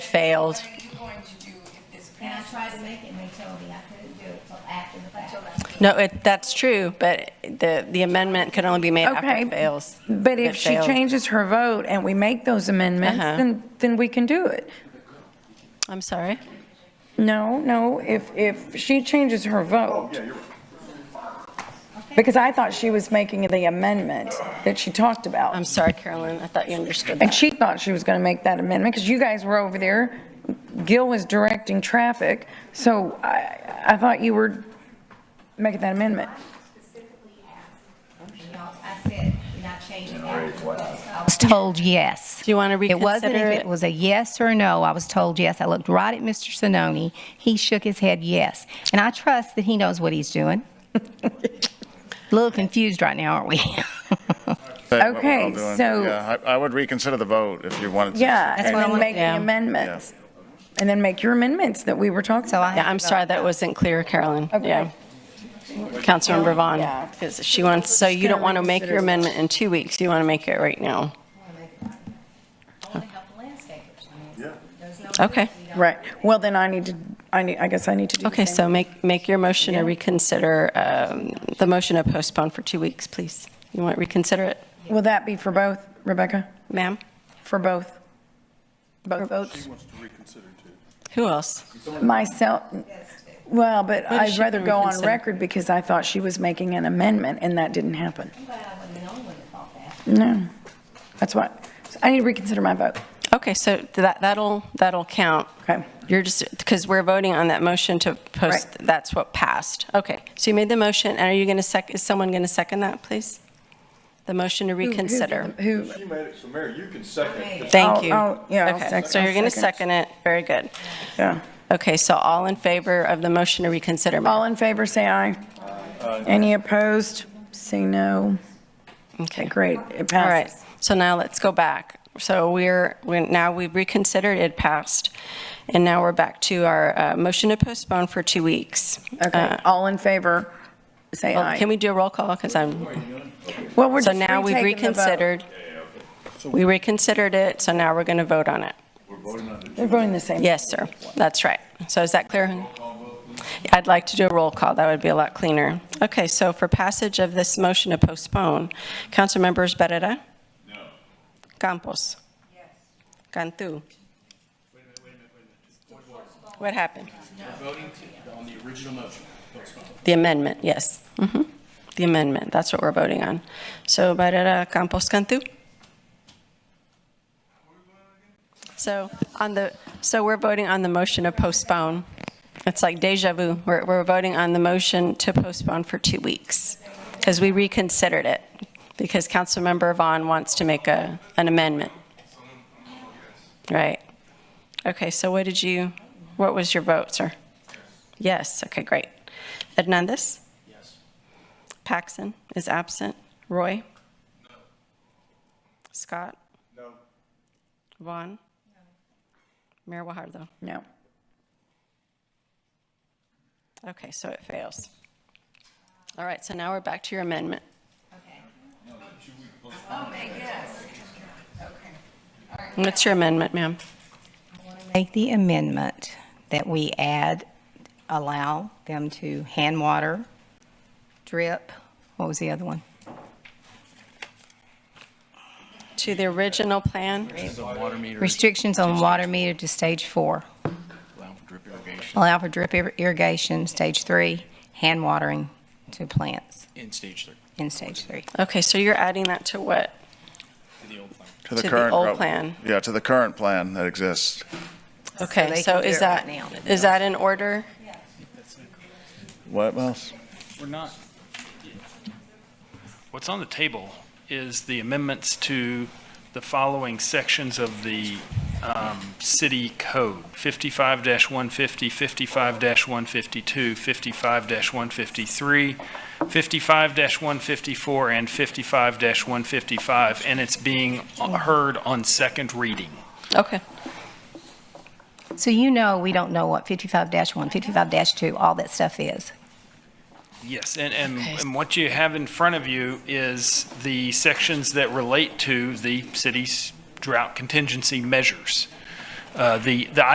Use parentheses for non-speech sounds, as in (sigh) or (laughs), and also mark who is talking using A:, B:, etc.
A: failed.
B: What are you going to do if this
C: And I
B: passes?
C: tried to make it, and they told me I couldn't do it till after the fact.
A: No, it, that's true, but the, the amendment can only be made after
D: Okay.
A: it fails.
D: But if
A: It
D: she
A: failed.
D: changes her vote and we make those amendments,
A: Uh-huh.
D: then, then we can do it.
A: I'm sorry.
D: No, no, if, if she changes her vote. Because I thought she was making the amendment that she talked
A: I'm
D: about.
A: sorry, Carolyn. I thought you understood
D: And
A: that.
D: she thought she was going to make that amendment because you guys were over there. Gil was directing traffic, so I, I thought you were making that amendment.
C: Specifically asked, you know, I said, you're not changing that. I was told yes.
A: Do you want to
C: It wasn't
A: reconsider
C: if it
A: it?
C: was a yes or a no. I was told yes. I looked right at Mr. Sinoni. He shook his head yes. And I trust that he knows what he's doing. (laughs) A little confused right now, aren't we? (laughs)
E: Say what we're all
D: Okay,
E: doing.
D: so-
E: Yeah, I I would reconsider the vote if you wanted to.
D: Yeah, and
C: what I
D: then
C: wanna-
D: make the
A: Yeah.
D: amendments. And then make your amendments that we were talking
C: So I-
D: about.
A: Yeah, I'm sorry, that wasn't clear, Carolyn.
D: Okay.
A: Yeah. Councilmember Vaughn,
D: Yeah.
A: because she wants, so you don't
D: gonna
A: want to make your
D: reconsider.
A: amendment in two weeks. You want to make it right now. Okay.
D: Right. Well, then I need to, I need, I guess I need to do the
A: Okay,
D: same.
A: so make, make your motion to reconsider, um, the motion to postpone for two weeks, please. You want to reconsider it,
D: Will that be for both, Rebecca?
A: ma'am?
D: For both? Both votes?
A: Who else?
D: Myself, well, but
A: But
D: I'd
A: she
D: rather
A: can
D: go on
A: reconsider.
D: record because I thought she was making an amendment and that didn't happen. No, that's what, so I need to reconsider my vote.
A: Okay, so that, that'll, that'll count.
D: Okay.
A: You're just, because we're voting on that motion to post,
D: Right.
A: that's what passed. Okay, so you made the motion, and are you going to sec, is someone going to second that, please? The motion to
D: Who- who did
A: reconsider.
D: the- Who,
F: She made it, so Mayor, you can second.
A: Thank
D: I'll-
A: you.
D: I'll- yeah, I'll
A: Okay,
D: sec-
A: so
D: I'll
A: you're going to
D: second.
A: second it, very good.
D: yeah.
A: Okay, so all in favor of the motion to reconsider, ma'am?
D: All in favor, say aye. Any opposed? Say no.
A: Okay,
D: Great, it
A: All right,
D: passes.
A: so now let's go back. So we're, we're- now we've reconsidered, it passed, and now we're back to our uh, motion to postpone for two weeks. Uh,
D: Okay, all in favor, say
A: Well,
D: aye.
A: Oh, Can we do a roll call? Because I'm,
D: Well, we're
A: so
D: just
A: now we've
D: retaking the vote.
A: reconsidered. We reconsidered it, so now we're going to vote on it.
D: We're voting the same.
A: Yes, sir, that's right. So is that clear? I'd like to do a roll call, that would be a lot cleaner. Okay, so for passage of this motion to postpone, Councilmembers Barrera? No. Campos? Yes. Cantu? What happened? The amendment, yes. Mhm. The amendment, that's what we're voting on. So Barrera, Campos, Cantu? So on the, so we're voting on the motion to postpone. It's like deja vu. We're, we're voting on the motion to postpone for two weeks because we reconsidered it because Councilmember Vaughn wants to make a, an amendment. Right. Okay, so what did you, what was your vote, sir? Yes, okay, great. Hernandez? Yes. Paxson is absent. Roy? No. Scott? No. Vaughn? No. Mayor Wahardo?
D: No.
A: Okay, so it fails. All right, so now we're back to your amendment. What's your amendment, ma'am?
C: Make the amendment that we add, allow them to hand water, drip, what was the other one?
A: To the original plan?
C: Restrictions on water meter to stage four. Allow for drip irrigation, stage three, hand watering to plants
G: in stage three,
C: in stage three.
A: Okay, so you're adding that to what?
G: to the old plan.
A: to the
E: current
A: old
E: route.
A: plan.
E: Yeah, to the current plan that exists.
A: Okay,
C: they
A: so
C: can do
A: is
C: it right
A: that,
C: now.
A: is that in order?
E: What else?
G: We're not. What's on the table is the amendments to the following sections of the um, city code. 55-150, 55-152, 55-153, 55-154, and 55-155, and it's being heard on second reading.
A: Okay,
C: So you know, we don't know what 55-1, 55-2, all that stuff is.
G: Yes, and, and, and what you have in front of you is the sections that relate to the city's drought contingency measures. Uh, The, the